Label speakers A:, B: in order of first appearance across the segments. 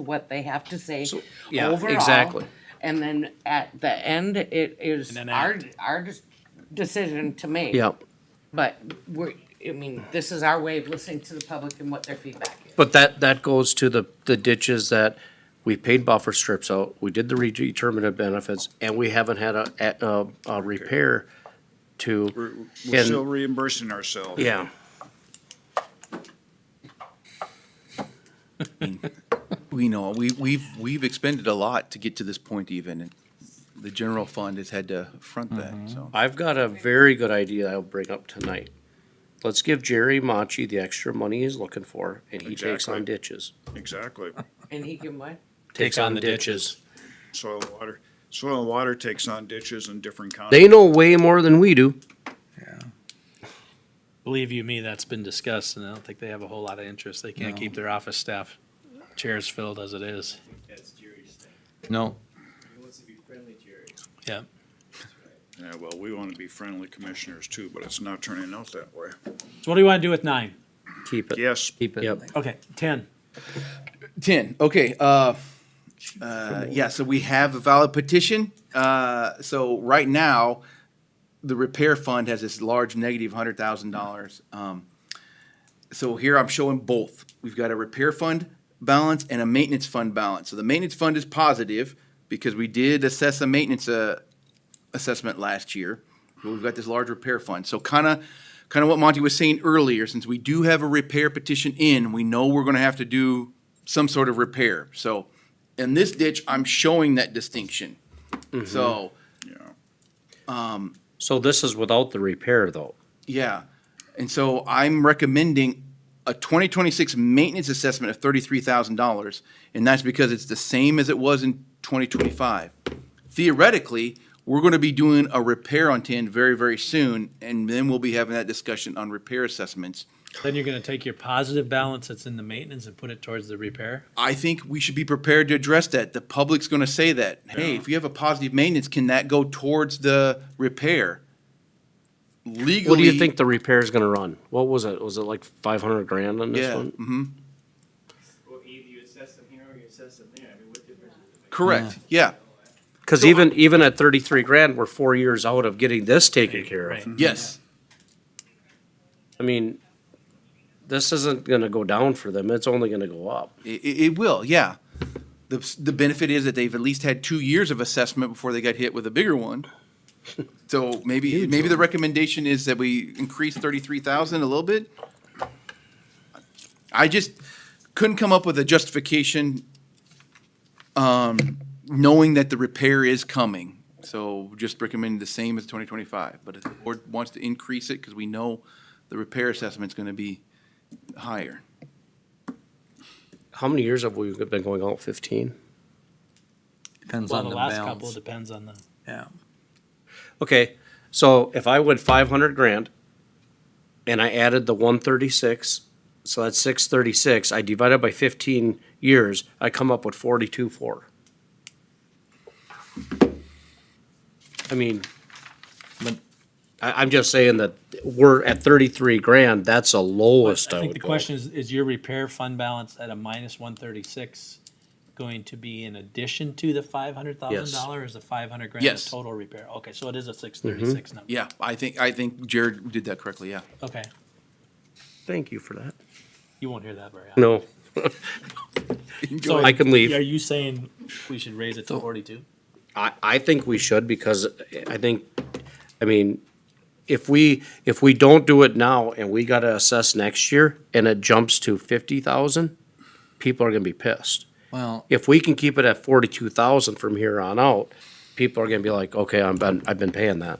A: what they have to say
B: So- yeah,
A: overall.
B: exactly.
A: And then at the end, it is
C: And then
A: our,
C: act.
A: our dis- decision to make.
B: Yep.
A: But we're, I mean, this is our way of listening to the public and what their feedback is.
B: But that, that goes to the, the ditches that we paid buffer strips out, we did the redeterminative benefits, and we haven't had a, a, a repair
D: We're,
B: to.
D: we're
B: And-
D: still reimbursing ourselves.
B: Yeah,
E: We know, we, we've, we've expended a lot to get to this point even, and the general fund has had to front that, so.
B: I've got a very good idea I'll bring up tonight. Let's give Jerry Machi the extra money he's looking for, and he takes on
D: Exactly.
B: ditches.
D: Exactly.
A: And he can what?
B: Takes on the ditches.
D: Soil and water, soil and water takes on ditches in different counties.
B: They know way more than we do.
C: Believe you me, that's been discussed, and I don't think they have a whole lot of interest. They can't keep their office staff chairs filled as it is.
F: That's Jerry's thing.
G: No,
F: He wants to be friendly, Jerry.
C: Yeah.
D: Yeah, well, we want to be friendly commissioners too, but it's not turning out that way.
C: So what do you want to do with nine?
B: Keep it.
D: Yes,
G: keep it.
B: Yep.
C: Okay, ten.
E: Ten, okay, uh, uh, yeah, so we have a valid petition, uh, so right now, the repair fund has this large negative hundred thousand dollars, um. So here I'm showing both, we've got a repair fund balance and a maintenance fund balance, so the maintenance fund is positive, because we did assess a maintenance, uh, assessment last year. but We've got this large repair fund. So kind of, kind of what Monty was saying earlier, since we do have a repair petition in, we know we're going to have to do some sort of repair. So in this ditch, I'm showing that distinction. So,
D: yeah.
B: So this is without the repair, though.
E: yeah. And so I'm recommending a 2026 maintenance assessment of $33,000. And that's because it's the same as it was in 2025. theoretically, we're gonna be doing a repair on ten very, very soon, and then we'll be having that discussion on repair assessments.
C: Then you're gonna take your positive balance that's in the maintenance and put it towards the repair?
E: I think we should be prepared to address that. The public's gonna say that, hey, if you have a positive maintenance, can that go towards the repair? Legally.
B: What do you think the repair is gonna run? What was it? Was it like five hundred grand on this
E: Yeah,
B: one?
E: hmm
F: Well, either you assess them here or you assess them there. I mean, what difference does it make?
E: correct, yeah,
B: Cause
E: So
B: even, even at thirty-three grand, we're four years out of getting this taken care of.
C: Right.
E: yes.
B: I mean, this isn't gonna go down for them, it's only gonna go up.
E: It, it will, yeah. The, the benefit is that they've at least had two years of assessment before they got hit with a bigger one. So maybe, maybe the recommendation is that we increase thirty-three thousand a little bit? I just couldn't come up with a justification, um, knowing that the repair is coming. So just recommend the same as twenty twenty-five, but if the board wants to increase it, because we know the repair assessment's gonna be higher.
B: How many years have we been going out? Fifteen?
G: Depends
C: Well,
G: on
C: the
G: the
C: last couple
G: balance.
C: depends on the,
G: Yeah.
B: Okay, so if I went five hundred grand and I added the one thirty-six, so that's six thirty-six, I divide it by fifteen years, I come up with forty-two four. I mean,
G: But-
B: I, I'm just saying that we're at thirty-three grand, that's the
C: I
B: lowest I
C: think the
B: would go.
C: question is, is your repair fund balance at a minus one thirty-six going to be in addition to the five hundred thousand dollar? Is the five hundred grand
E: Yes.
C: the total repair? Okay, so it is a six
B: Mm-hmm.
C: thirty-six number.
E: Yeah, I think, I think Jared did that correctly, yeah.
C: Okay,
B: Thank you for that.
C: you won't hear that very often.
B: No,
C: So
B: I can leave.
C: Are you saying we should raise it to forty-two?
B: I, I think we should because I think, I mean, if we, if we don't do it now and we gotta assess next year and it jumps to fifty thousand, people are gonna be pissed.
G: Well,
B: If we can keep it at forty-two thousand from here on out, people are gonna be like, okay, I'm been, I've been paying that.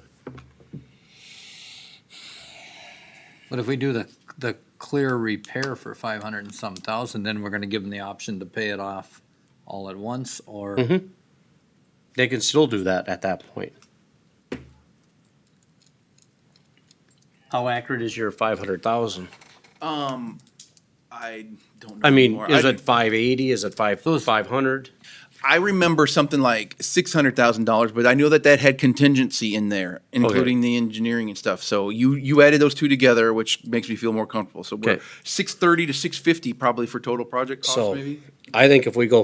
G: but if we do the, the clear repair for five hundred and some thousand, then we're gonna give them the option to pay it off all at once or
B: They can still do that at that point. How accurate is your five hundred thousand?
E: Um, I don't know.
B: I mean,
E: anymore.
B: is
E: I-
B: it five eighty? Is it five, five hundred?
E: I remember something like six hundred thousand dollars, but I know that that had contingency in there, including the engineering and stuff. So you you added those two together, which makes me feel more comfortable. So we're
B: Okay.
E: six thirty to six fifty probably for total project cost,
B: So,
E: maybe.
B: I think if we go